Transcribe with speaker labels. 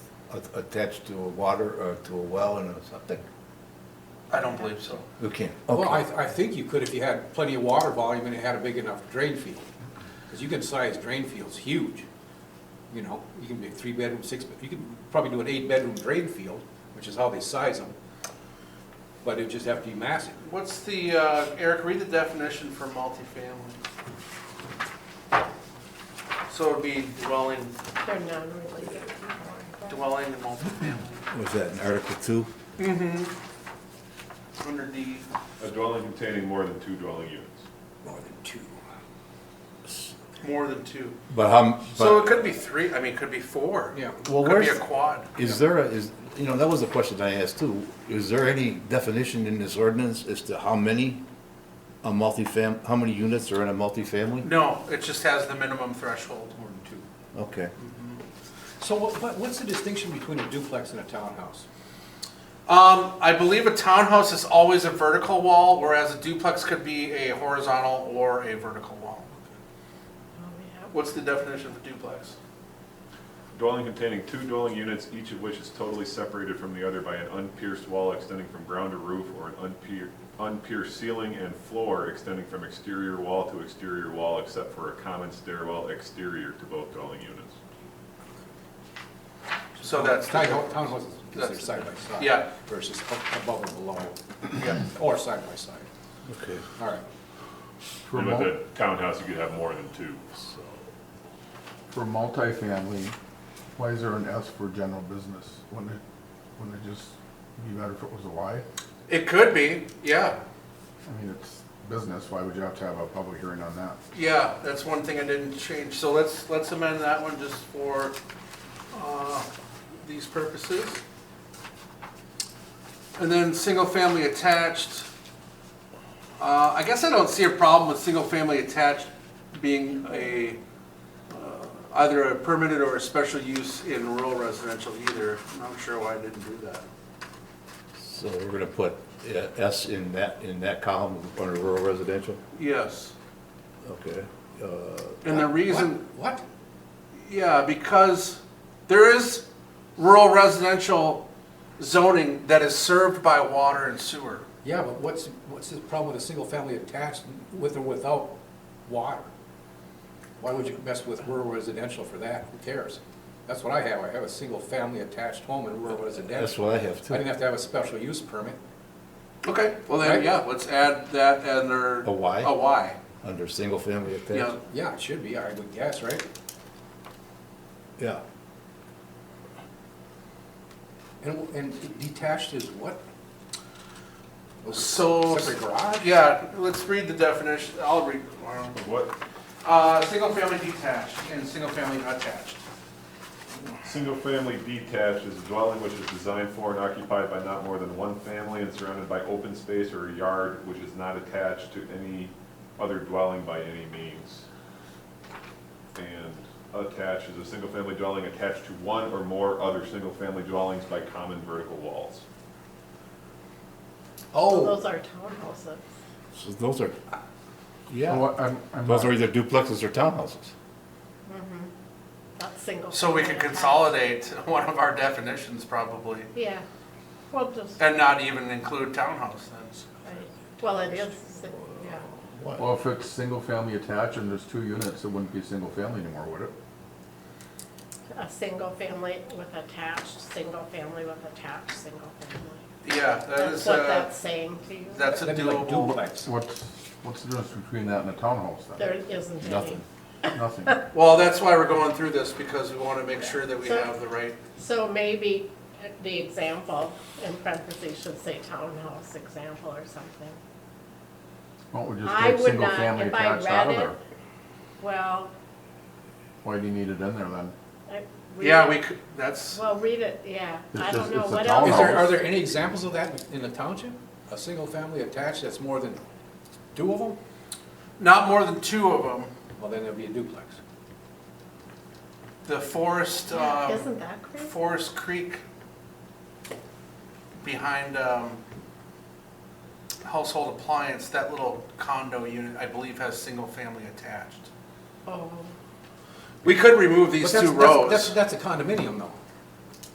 Speaker 1: a- attached to a water, or to a well and a something?
Speaker 2: I don't believe so.
Speaker 1: You can't,
Speaker 3: Well, I,
Speaker 1: okay.
Speaker 3: I think you could if you had plenty of water volume and it had a big enough drain field. Because you can size drain fields huge, you know, you can make three bedroom, six, bed- you could probably do an eight bedroom drain field, which is how they size them. But it'd just have to be massive.
Speaker 2: What's the, uh, Eric, read the definition for multifamily. So it'd be dwelling,
Speaker 4: They're non-related.
Speaker 2: dwelling in multifamily,
Speaker 1: Was that in Article Two?
Speaker 2: under D.
Speaker 5: A dwelling containing more than two dwelling units.
Speaker 3: More than two.
Speaker 2: more than two.
Speaker 1: But how, m-
Speaker 2: So it
Speaker 1: but,
Speaker 2: could be three, I mean, it could be four.
Speaker 3: Yeah.
Speaker 1: Well,
Speaker 2: Could be a
Speaker 1: where's-
Speaker 2: quad.
Speaker 1: is there a, is, you know, that was a question I asked too. Is there any definition in this ordinance as to how many a multifam, how many units are in a multifamily?
Speaker 2: No, it just has the minimum threshold.
Speaker 3: More than two.
Speaker 1: Okay.
Speaker 3: So what, what- what's the distinction between a duplex and a townhouse?
Speaker 2: Um, I believe a townhouse is always a vertical wall, whereas a duplex could be a horizontal or a vertical wall.
Speaker 4: Oh,
Speaker 2: What's the definition for duplex?
Speaker 5: Dwelling containing two dwelling units, each of which is totally separated from the other by an unpierced wall extending from ground to roof or an unpier- unpierced ceiling and floor extending from exterior wall to exterior wall except for a common stairwell exterior to both dwelling units.
Speaker 1: Uh,
Speaker 2: So that's. the-
Speaker 3: Townhou- Townhouses
Speaker 2: That's-
Speaker 3: considered side by side.
Speaker 2: yeah.
Speaker 3: Versus up- above and below,
Speaker 2: Yeah.
Speaker 3: or side by side.
Speaker 1: Okay.
Speaker 3: All right.
Speaker 6: For
Speaker 5: And with
Speaker 6: mul-
Speaker 5: a townhouse, you could have more than two.
Speaker 6: for multifamily, why is there an S for general business? Wouldn't it, wouldn't it just be better if it was a Y?
Speaker 2: It could be, yeah,
Speaker 6: I mean, it's business, why would you have to have a public hearing on that?
Speaker 2: yeah, that's one thing I didn't change, so let's, let's amend that one just for, uh, these purposes. And then, single-family attached, uh, I guess I don't see a problem with single-family attached being a, uh, either a permitted or a special use in rural residential either, I'm not sure why I didn't do that.
Speaker 1: So we're gonna put uh, S in that, in that column under rural residential?
Speaker 2: Yes,
Speaker 1: Okay. Uh,
Speaker 2: and the reason.
Speaker 3: What? what?
Speaker 2: Yeah, because there is rural residential zoning that is served by water and sewer.
Speaker 3: Yeah, but what's, what's the problem with a single family attached with or without water? Why would you mess with rural residential for that? Who cares? That's what I have. I have a single family attached home in rural
Speaker 1: That's
Speaker 3: residential.
Speaker 1: what I have
Speaker 3: I didn't
Speaker 1: too.
Speaker 3: have to have a special use permit.
Speaker 2: Okay, well then,
Speaker 3: Right.
Speaker 2: yeah, let's add that and there.
Speaker 1: A Y?
Speaker 2: A Y,
Speaker 1: Under single family
Speaker 2: yeah.
Speaker 1: attached?
Speaker 3: Yeah, it should be, I would guess, right?
Speaker 1: Yeah.
Speaker 3: And, and detached is what?
Speaker 2: So,
Speaker 3: Separate garage?
Speaker 2: yeah, let's read the definition, I'll read. um,
Speaker 5: What,
Speaker 2: Uh, single-family detached and single-family attached.
Speaker 5: Single-family detached is a dwelling which is designed for and occupied by not more than one family and surrounded by open space or a yard which is not attached to any other dwelling by any means. And attached is a single-family dwelling attached to one or more other single-family dwellings by common vertical walls.
Speaker 3: Oh,
Speaker 6: Oh.
Speaker 4: Those are townhouses.
Speaker 1: So those are,
Speaker 6: So
Speaker 1: yeah,
Speaker 6: what- I'm, I'm
Speaker 1: those are
Speaker 6: not,
Speaker 1: either duplexes or townhouses.
Speaker 4: Not single.
Speaker 2: So we could
Speaker 4: family.
Speaker 2: consolidate one of our definitions probably,
Speaker 4: Yeah, well, just,
Speaker 2: and not even include townhouse then.
Speaker 4: right. well, it is, sin- yeah,
Speaker 6: well, if it's single-family attached and there's two units, it wouldn't be single-family anymore, would it?
Speaker 4: a single family with attached, single family with attached, single family.
Speaker 2: Yeah, that
Speaker 4: That's
Speaker 2: is,
Speaker 4: what
Speaker 2: uh,
Speaker 4: that's saying to you.
Speaker 2: that's a
Speaker 3: that'd be like
Speaker 2: doable.
Speaker 3: duplex.
Speaker 6: What's, what's the difference between that and a townhouse
Speaker 4: There
Speaker 6: then?
Speaker 4: isn't any.
Speaker 1: Nothing.
Speaker 6: Nothing.
Speaker 2: Well, that's why we're going through this, because we want to make sure that we have the right,
Speaker 4: So maybe the example in parentheses should say townhouse example or something.
Speaker 6: Why don't we just
Speaker 4: I
Speaker 6: take
Speaker 4: would not,
Speaker 6: single-family
Speaker 4: if I
Speaker 6: attached out
Speaker 4: read
Speaker 6: of
Speaker 4: it,
Speaker 6: there?
Speaker 4: well,
Speaker 6: Why do you need it in there then?
Speaker 4: I. read
Speaker 2: yeah,
Speaker 4: it-
Speaker 2: we could, that's,
Speaker 4: Well, read it, yeah,
Speaker 6: It's
Speaker 4: I
Speaker 6: just-
Speaker 4: don't know,
Speaker 6: it's a
Speaker 4: what
Speaker 3: Is
Speaker 4: else?
Speaker 3: there, are there any examples of that in the township? A single family attached that's more than two of them?
Speaker 2: not more than two of them.
Speaker 3: Well, then it'll be a duplex.
Speaker 2: The Forest,
Speaker 4: Yeah,
Speaker 2: um,
Speaker 4: Isn't that crazy?
Speaker 2: Forest Creek behind um, Household Appliance, that little condo unit, I believe, has single-family attached.
Speaker 4: Oh,
Speaker 2: We could remove
Speaker 3: But
Speaker 2: these
Speaker 3: that's-
Speaker 2: two
Speaker 3: that's- That's,
Speaker 2: rows.
Speaker 3: that's a condominium though.